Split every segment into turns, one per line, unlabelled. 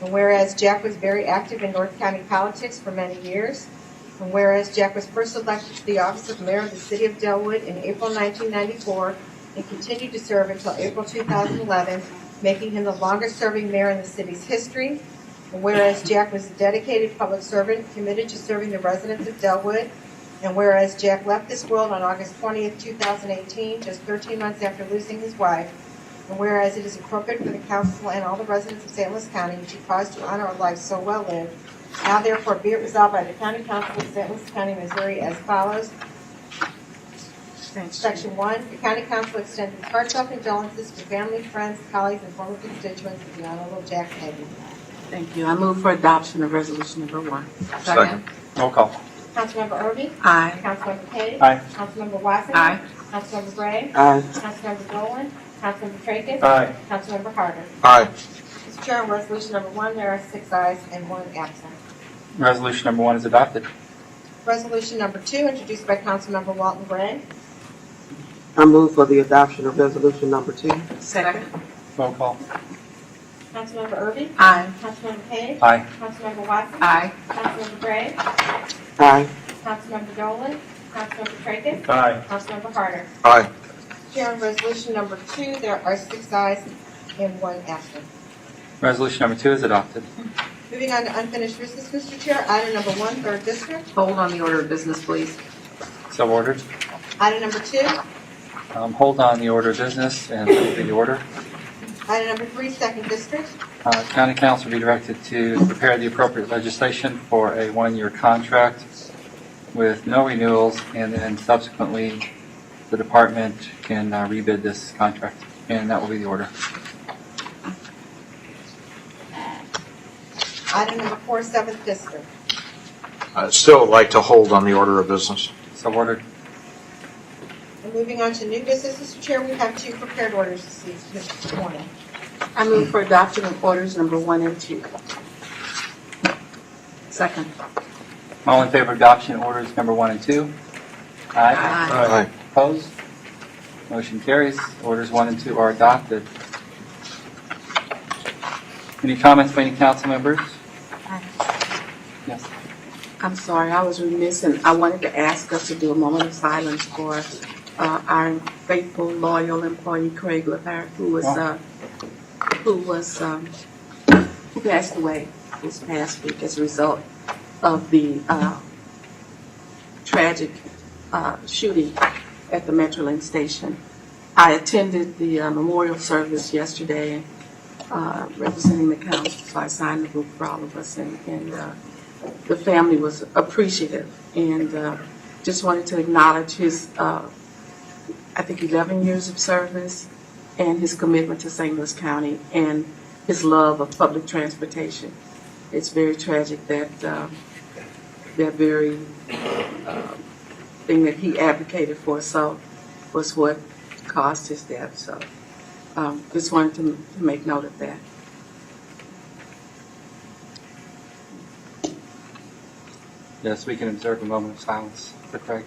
And whereas Jack was very active in North County politics for many years, and whereas Jack was first elected to the office of mayor of the city of Delwood in April 1994 and continued to serve until April 2011, making him the longest-serving mayor in the city's history. And whereas Jack was a dedicated public servant committed to serving the residents of Delwood, and whereas Jack left this world on August 20th, 2018, just 13 months after losing his wife, and whereas it is appropriate for the council and all the residents of St. Louis County to pause to honor a life so well lived, now therefore be it resolved by the County Council of St. Louis County, Missouri as follows. Section one, the County Council extends its heartfelt condolences to family, friends, colleagues, and former constituents of the Honorable Jack Hagan.
Thank you. I move for adoption of resolution number one.
Second. Roll call.
Councilmember Erby?
Aye.
Councilmember Page?
Aye.
Councilmember Wassinger?
Aye.
Councilmember Gray?
Aye.
Councilmember Dolan? Councilmember Tracus?
Aye.
Councilmember Harder?
Aye.
Mr. Chair, on resolution number one, there are six ayes and one absent.
Resolution number one is adopted.
Resolution number two, introduced by Councilmember Walton Gray.
I move for the adoption of resolution number two.
Second.
Roll call.
Councilmember Erby?
Aye.
Councilmember Page?
Aye.
Councilmember Watson?
Aye.
Councilmember Gray?
Aye.
Councilmember Dolan? Councilmember Tracus?
Aye.
Councilmember Harder?
Aye.
Chair, on resolution number two, there are six ayes and one absent.
Resolution number two is adopted.
Moving on to unfinished business, Mr. Chair, item number one, third district.
Hold on the order of business, please.
So ordered.
Item number two,
Um, Hold on the order of business and move the order.
item number three, second district.
Uh, County Council be directed to prepare the appropriate legislation for a one-year contract with no renewals, and then subsequently, the department can uh, rebid this contract, and that will be the order.
Item number four, seventh district.
I'd still like to hold on the order of business.
So ordered.
And moving on to new business, Mr. Chair, we have two prepared orders this evening- this morning.
I move for adoption of orders number one and two. Second.
All in favor of adoption of orders number one and two?
Aye.
Aye.
Opposed? Motion carries. Orders one and two are adopted. Any comments by any council members? Yes.
I'm sorry, I was remiss, and I wanted to ask us to do a moment of silence for uh, our faithful, loyal employee Craig LaParrot, who was, uh, who was, um, who passed away this past week as a result of the uh, tragic uh, shooting at the Metrolink station. I attended the uh, memorial service yesterday, uh, representing the council, so I signed the book for all of us, and, and uh, the family was appreciative and uh, just wanted to acknowledge his, uh, I think, 11 years of service and his commitment to St. Louis County and his love of public transportation. It's very tragic that uh, that very uh, thing that he advocated for so was what caused his death. So um, just wanted to m- to make note of that.
Yes, we can observe a moment of silence for Craig.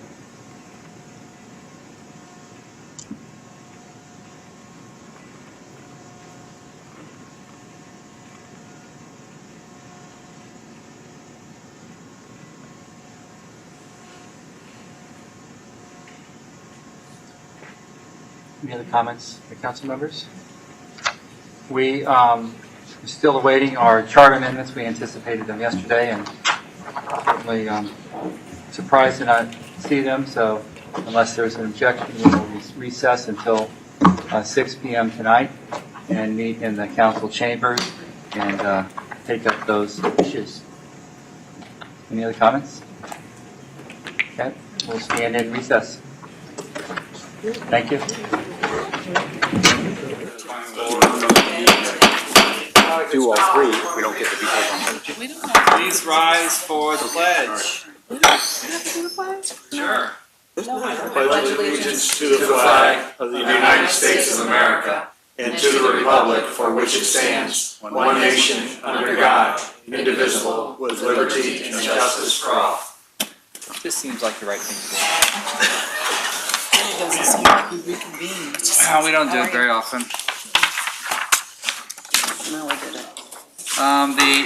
Any other comments by council members? We um, are still awaiting our charter amendments. We anticipated them yesterday, and certainly um, surprised to not see them, so unless there's an objection, we will recess until uh, 6 PM tonight and meet in the council chambers and uh, take up those issues. Any other comments? Okay, we'll stand in recess. Thank you.
Do all three, we don't get to be.
Please rise for the pledge. Sure.
pledge allegiance to the flag of the United States of America and to the republic for which it stands, one nation, under God, indivisible, with liberty and justice for all.
This seems like the right thing to do. we don't do it very often.
No, I didn't.
Um, The